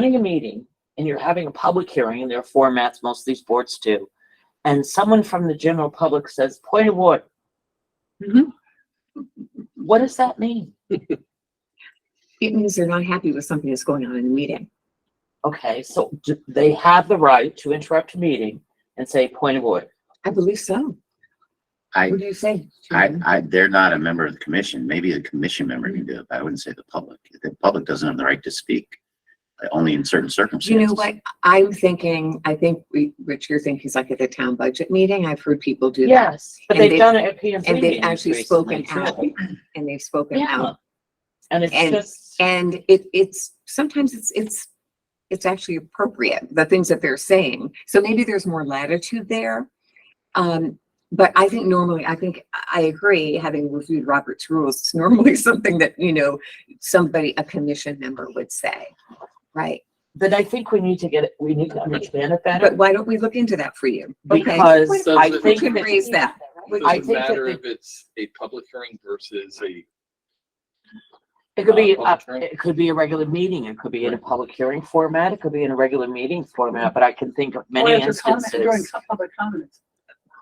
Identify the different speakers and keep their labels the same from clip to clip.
Speaker 1: running a meeting and you're having a public hearing, and there are formats most of these boards do, and someone from the general public says, point of order.
Speaker 2: Mhm.
Speaker 1: Mm-hmm. What does that mean?
Speaker 2: It means they're not happy with something that's going on in the meeting.
Speaker 1: Okay, so d- they have the right to interrupt a meeting and say, point of order.
Speaker 2: I believe so.
Speaker 3: I,
Speaker 2: What do you say?
Speaker 3: I,
Speaker 2: Julian?
Speaker 3: I, they're not a member of the commission. Maybe a commission member can do it, but I wouldn't say the public. The public doesn't have the right to speak, uh, only in certain
Speaker 2: You
Speaker 3: circumstances.
Speaker 2: know what? I'm thinking, I think we, Rich, you're thinking it's like at the town budget meeting. I've heard people do that.
Speaker 1: Yes, but
Speaker 2: And
Speaker 1: they've
Speaker 2: they-
Speaker 1: done it at P and
Speaker 2: And they've actually spoken out and they've spoken
Speaker 1: Yeah.
Speaker 2: out.
Speaker 1: And it's
Speaker 2: and-
Speaker 1: just,
Speaker 2: And it, it's, sometimes it's, it's, it's actually appropriate, the things that they're saying. So maybe there's more latitude there. Um, but I think normally, I think, I agree, having reviewed Robert's rules, it's normally something that, you know, somebody, a commission member would say, right?
Speaker 1: but I think we need to get, it. we need to understand it better
Speaker 2: But why don't we look into that for you? Okay.
Speaker 1: because
Speaker 4: So
Speaker 1: I
Speaker 4: the-
Speaker 2: We
Speaker 1: think
Speaker 2: can
Speaker 1: that-
Speaker 2: raise that.
Speaker 4: Does
Speaker 1: I
Speaker 4: it
Speaker 1: think that
Speaker 4: matter
Speaker 1: they-
Speaker 4: if it's a public hearing versus a,
Speaker 1: It could
Speaker 4: Uh,
Speaker 1: be,
Speaker 4: public
Speaker 1: up-
Speaker 4: hearing?
Speaker 1: it could be a regular meeting, it could be in a public hearing format, it could be in a regular meeting format, but I can think of
Speaker 5: Or
Speaker 1: many
Speaker 5: if it's comment- During
Speaker 1: instances.
Speaker 5: co- public comments.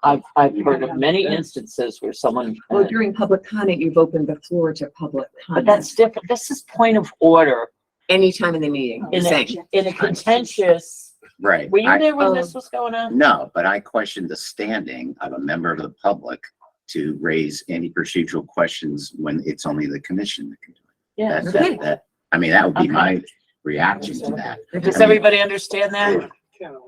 Speaker 1: I've, I've heard of
Speaker 5: Yeah.
Speaker 1: many
Speaker 4: Yeah.
Speaker 1: instances where someone, uh,
Speaker 2: Well, during public comment, you've opened the floor to public
Speaker 1: but
Speaker 2: comment
Speaker 1: that's different, this is point of order
Speaker 2: anytime in the meeting, you're
Speaker 1: in a,
Speaker 2: saying.
Speaker 1: in a contentious,
Speaker 3: Right.
Speaker 1: were you
Speaker 3: I-
Speaker 1: there when
Speaker 2: Oh.
Speaker 1: this was going on?
Speaker 3: No, but I question the standing of a member of the public to raise any procedural questions when it's only the commission that can do it.
Speaker 1: Yeah,
Speaker 3: That, that, that, I mean, that would be
Speaker 1: Okay.
Speaker 3: my reaction to that.
Speaker 1: does
Speaker 3: I mean-
Speaker 1: everybody understand that?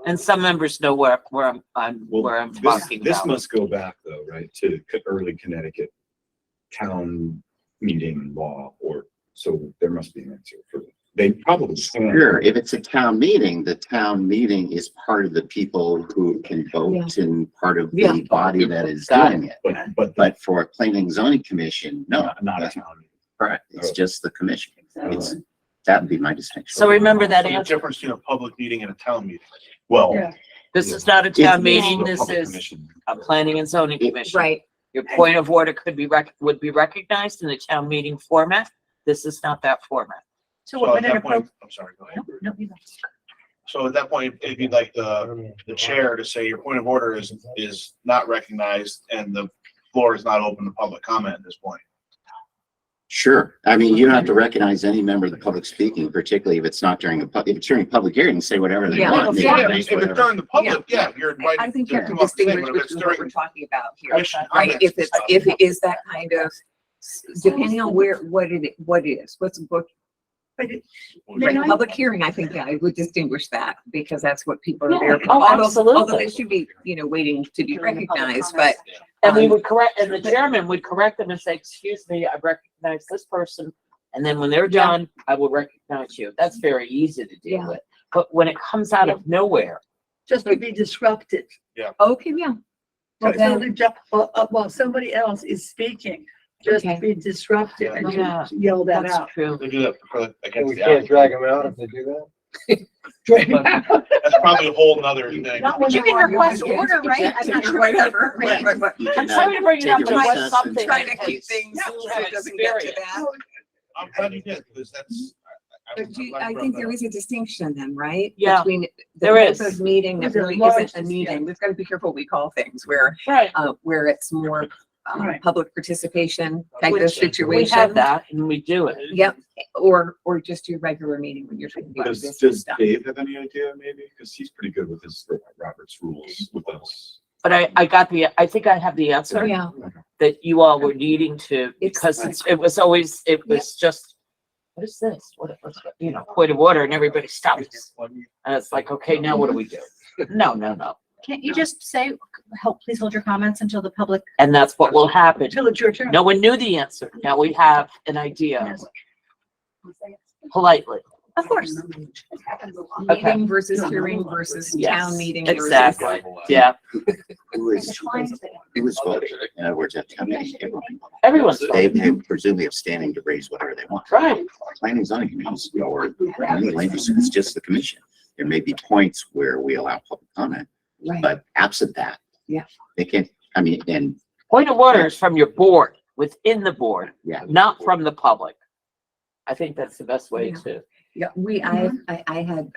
Speaker 1: And some members know where, where I'm, I'm,
Speaker 6: Well,
Speaker 1: where I'm
Speaker 6: This,
Speaker 1: talking
Speaker 6: this
Speaker 1: about.
Speaker 6: must go back though, right, to co- early Connecticut town meeting law or, so there must be an answer for, they probably. can.
Speaker 3: Sure, if it's a town meeting, the town meeting is part of the people who can vote and part of
Speaker 2: Yeah.
Speaker 3: the body that is
Speaker 1: Got
Speaker 3: doing it.
Speaker 6: But, but
Speaker 3: But for a planning and zoning commission, no,
Speaker 6: not, not a town. meeting.
Speaker 3: correct. It's
Speaker 6: Oh.
Speaker 3: just the commission. It's,
Speaker 5: Exactly.
Speaker 3: that would be my distinction.
Speaker 1: So remember that
Speaker 7: The
Speaker 1: answer,
Speaker 7: difference between a public meeting and a town meeting.
Speaker 6: Well.
Speaker 5: Yeah.
Speaker 1: this is not a town meeting, this
Speaker 6: Public
Speaker 1: is
Speaker 6: commission.
Speaker 1: a planning and zoning commission.
Speaker 2: Right,
Speaker 1: Your point of order could be rec, would be recognized in the town meeting format. This is not that format.
Speaker 5: So
Speaker 7: So
Speaker 5: what
Speaker 7: at
Speaker 5: an
Speaker 7: that
Speaker 5: appropriate.
Speaker 7: point, I'm sorry, go ahead. So at that point, it'd be like the, the chair to say your point of order is, is not recognized and the floor is not open to public comment at this point.
Speaker 3: Sure. I mean, you don't have to recognize any member of the public speaking, particularly if it's not during a, pub- if it's during a public hearing, say whatever they
Speaker 2: Yeah.
Speaker 3: want. They
Speaker 7: Yeah,
Speaker 3: can
Speaker 7: if
Speaker 3: make
Speaker 7: it's if it's
Speaker 3: whatever-
Speaker 7: during the public, yeah, you're
Speaker 2: I
Speaker 7: invited.
Speaker 2: think
Speaker 3: you
Speaker 2: you have to
Speaker 3: have to
Speaker 7: come up and say,
Speaker 2: distinguish
Speaker 7: but if it's
Speaker 2: between what we're
Speaker 7: during
Speaker 2: talking about here.
Speaker 7: commission
Speaker 2: Right,
Speaker 7: comments
Speaker 2: if
Speaker 7: and
Speaker 2: it's,
Speaker 7: stuff,
Speaker 2: if it is that kind of, depending on where, what it, what it is, what's, what,
Speaker 5: But it-
Speaker 2: right,
Speaker 5: Then I-
Speaker 2: public hearing, I think, yeah, I would distinguish that because that's what people are there.
Speaker 1: Yeah,
Speaker 2: for.
Speaker 1: oh,
Speaker 2: Although- Although
Speaker 1: absolutely.
Speaker 2: they should be, you know, waiting to be
Speaker 5: during the public
Speaker 2: recognized, but
Speaker 5: comment section.
Speaker 1: And we
Speaker 2: Um,
Speaker 1: would correct, and the chairman would correct them and say, excuse me, I recognize this person. And then when they're
Speaker 2: Yeah.
Speaker 1: done, I will recognize you. That's very easy to deal
Speaker 2: Yeah.
Speaker 1: with. But when it comes out of nowhere,
Speaker 5: Just to be disrupted.
Speaker 2: okay, yeah. Well,
Speaker 5: Well,
Speaker 2: then,
Speaker 5: while somebody else is speaking, just
Speaker 2: Okay.
Speaker 5: be disruptive and
Speaker 1: Yeah.
Speaker 5: you yell that
Speaker 1: that's
Speaker 5: out.
Speaker 1: true.
Speaker 7: They do that for- against
Speaker 8: We
Speaker 7: the
Speaker 8: can't
Speaker 7: applicant.
Speaker 8: drag them out if they do that?
Speaker 7: That's probably a whole nother thing.
Speaker 5: Not when
Speaker 2: You
Speaker 5: you
Speaker 2: can
Speaker 5: are
Speaker 2: request
Speaker 5: arguing.
Speaker 2: order, right? I'm not sure, whatever, right, right, right.
Speaker 3: You can
Speaker 1: I'm sorry to bring it
Speaker 3: take
Speaker 1: up,
Speaker 3: a
Speaker 1: but what's
Speaker 3: recess and-
Speaker 1: something?
Speaker 2: Trying to keep things
Speaker 1: Yeah,
Speaker 2: so it doesn't get to that.
Speaker 7: I'm glad you did, because that's. I- I-
Speaker 2: But do, you-
Speaker 7: I'm glad
Speaker 2: I
Speaker 7: you brought
Speaker 2: think
Speaker 7: that
Speaker 2: there
Speaker 7: up.
Speaker 2: is a distinction then, right?
Speaker 1: Yeah,
Speaker 2: Between the
Speaker 1: there
Speaker 2: type
Speaker 1: is.
Speaker 2: of Meeting that
Speaker 5: There's a
Speaker 2: really
Speaker 5: large
Speaker 2: isn't a
Speaker 5: distinction.
Speaker 2: meeting. We've got to be careful what we call things where,
Speaker 1: Right.
Speaker 2: uh, where it's more, um,
Speaker 5: Right.
Speaker 2: public participation type of
Speaker 1: Which We
Speaker 2: situation.
Speaker 1: have that and we do it.
Speaker 2: Yep, or, or just your regular meeting when you're talking about
Speaker 6: Does,
Speaker 2: business
Speaker 6: does
Speaker 2: stuff.
Speaker 6: Dave have any idea maybe? Cause he's pretty good with his Robert's rules with us.
Speaker 1: But I, I got the, I think I have the answer.
Speaker 2: Yeah,
Speaker 1: that you all were needing to,
Speaker 2: It's
Speaker 1: because
Speaker 2: like-
Speaker 1: it's- it was always, it
Speaker 2: Yeah.
Speaker 1: was just, what is this? What, what's, you know, point of order and everybody stops. And it's like, okay, now what do we do? No, no, no.
Speaker 9: Can't you just say, help, please hold your comments until the public
Speaker 1: And that's what will happen.
Speaker 5: Until it's your turn.
Speaker 1: No one knew the answer. Now we have an idea politely.
Speaker 5: Of course.
Speaker 1: Okay.
Speaker 2: meeting versus hearing versus
Speaker 1: Yes,
Speaker 2: town meeting. versus-
Speaker 1: Exactly. Yeah,
Speaker 3: Who is, who is voting? In other words, that's how many.
Speaker 1: everyone's
Speaker 3: They,
Speaker 1: right.
Speaker 3: they presumably have standing to raise whatever they want.
Speaker 1: Right.
Speaker 3: Planning and zoning commissions or any land use, it's just the commission. There may be points where we allow public comment,
Speaker 2: Right.
Speaker 3: but absent that.
Speaker 2: Yeah.
Speaker 3: They can't, I mean, and
Speaker 1: Point of order is from your board, within the board,
Speaker 3: yeah.
Speaker 1: not from the public. I think that's the best way to,
Speaker 2: We, I, I, I had,